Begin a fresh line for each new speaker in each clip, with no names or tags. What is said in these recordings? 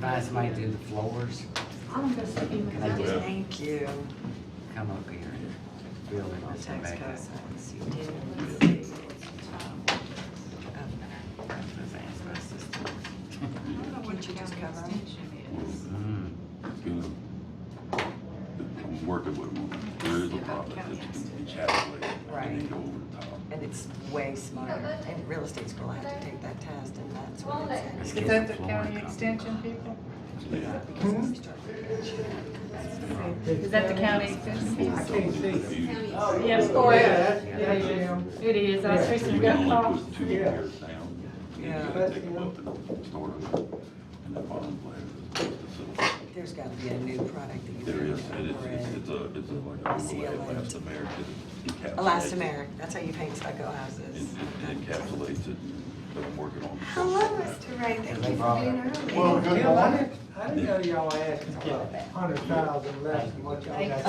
buy somebody to do the floors,
I'm gonna see him.
Can I
Yeah.
Thank you.
come up here and build it
Our
on
tax
back up.
cuts. Yes, you did. Let's see. Can't you just cover 'em?
Mm.
you know, I'm working with them. There is a problem that you encapsulate and then
Right.
go over the top.
And it's way smarter, and real estate's gonna have to take that test, and that's what it's.
Let's
Is
get
that the
floor
county
covered.
extension people?
Yeah.
Is that the county extension? people?
I can't see.
Yes, go ahead.
Yeah.
Yeah, yeah.
It is, I was
You
fixing to
can
get
only
off.
put two pairs down. You
Yeah.
gotta take them up and store them in the bottom layer. It's
There's gotta be a new product that
a-
you.
There is,
can
it is,
incorporate.
it's, it's a, it's a like a
See,
overlay
I like-
elastomeric. that encapsulates it.
Elastomeric, that's how you paint stucco
It
houses.
it- it encapsulates it, but I'm working on.
Hello, Mr. Ray, thank you for being early.
Well, Bill, I didn't, I didn't know y'all asked for a hundred thousand less than what y'all got.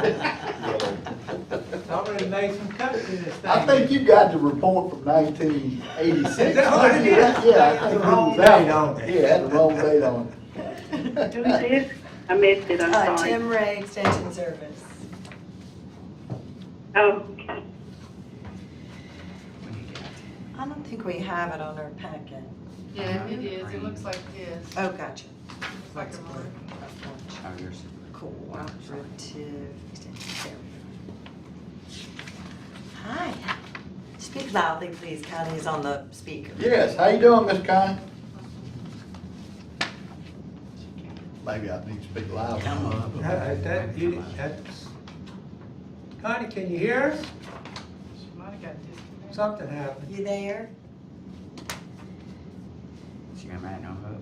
to ask. I'm ready to make some cuts in this thing.
I think you got the report from nineteen eighty-six.
Is that what it is?
Yeah, I think it
The wrong
was that
date on
one.
it.
Yeah, had the wrong date on
Who is this? I missed it, I'm
Uh,
sorry.
Tim Ray, Extension Service.
Oh, okay.
What do you got?
I don't think we have it on our packet.
Yeah, it is, it looks like this.
Oh, gotcha.
It's like a mark.
Oh, yours is the-
Cooperative Extension Service. Hi. Speak loudly, please. Connie is on the speaker.
it. Yes, how you doing, Miss Connie? Maybe I need to speak loud.
Come up.
Uh, That, you- that's, Connie, can you hear us?
She might have got disconnected.
Something happened.
You there?
She gonna make no hook.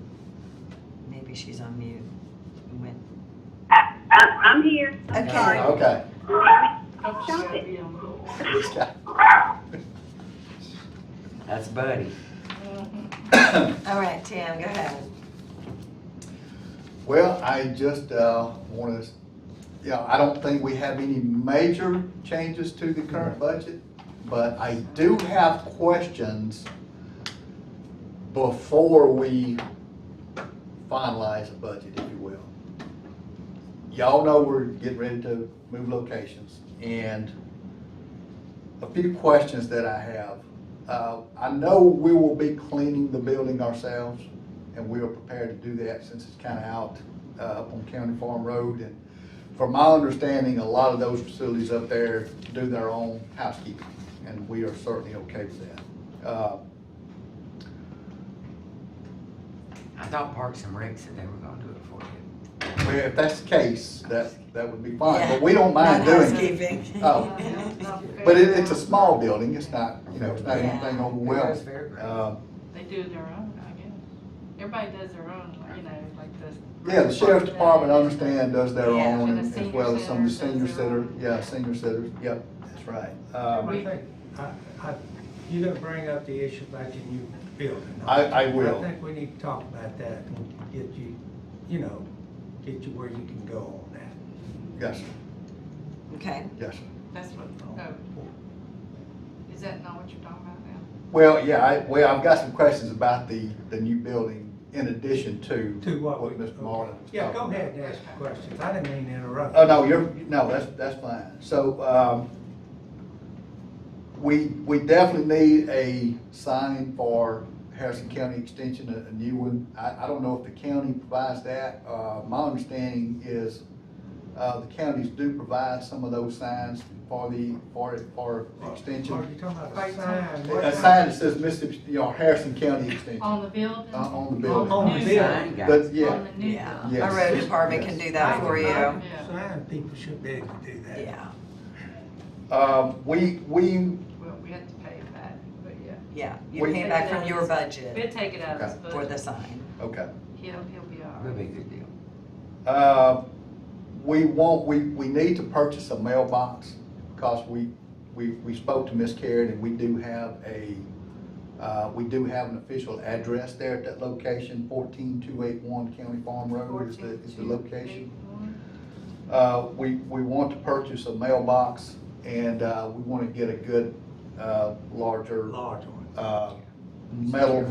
Maybe she's on mute. Went-
I, I, I'm here.
Okay.
Okay.
Oh, she
Stop
gotta
it.
be on hold.
That's Buddy.
All right, Tim, go ahead.
Well, I just want to, yeah, I don't think we have any major changes to the current budget, but I do have questions before we finalize the budget, if you will. Y'all know we're getting ready to move locations, and a few questions that I have. Uh, I know we will be cleaning the building ourselves, and we are prepared to do that since it's kind of out uh, up on County Farm Road. And from my understanding, a lot of those facilities up there do their own housekeeping, and we are certainly okay with that. Uh,
I thought Parks and Rec said they were gonna do it for you.
well, If that's the case, that, that would be fine,
Yeah.
but we don't mind
Not
doing it.
housekeeping.
Oh. But it, it's a small building, it's not, you know, it's not anything overwhelming. Uh,
They do their own, I guess. Everybody does their own, you know, like this.
Yeah, the sheriff's department, I understand, does their
Yeah,
and
own,
the
and- as
senior
well as some of the
center
senior
does their
center,
own.
yeah, senior centers, yep, that's right.
I
Um,
think, I, I, you gonna bring up the issue about your new building.
I, I
I
will,
think we need to talk about that and get you, you know, get you where you can go on that.
yes, sir.
Okay.
yes. sir.
That's what, oh.
Oh.
Is that not what you're talking about now?
Well, yeah, I, well, I've got some questions about the, the new building in addition to.
To what we-
Mr. Marlin. was
Yeah, go
talking
ahead and ask your questions. I didn't mean to
about.
interrupt.
Oh, no, you're, no, that's, that's fine. So, um, we, we definitely need a sign for Harrison County Extension, a, a new one. I, I don't know if the county provides that. Uh, my understanding is, uh, the counties do provide some of those signs for the, for, for
Are
extension.
you talking about a sign?
A sign that says Mississippi, you know, Harrison County Extension.
On the building?
Uh, on the
On-
building.
on the
New
building.
I ain't got
But,
On
yeah,
the new
Yeah.
building.
Yes.
Our road department can do that for you.
Yeah.
Sign people should be able to do that.
Yeah,
um, we, we,
Well, we have to pay it back, but yeah.
yeah. You
We-
pay it back from your budget
We'll take it out of his
for the
budget.
sign.
okay.
He'll, he'll be all
That'd
right.
be a good deal.
Uh, we want, we, we need to purchase a mailbox, because we, we, we spoke to Miss Karen, and we do have a, uh, we do have an official address there at that location, fourteen two eight one County Farm Road is the, is the
14,281.
location. Uh, we, we want to purchase a mailbox, and, uh, we want to get a good, uh, larger,
Large one.
uh, metal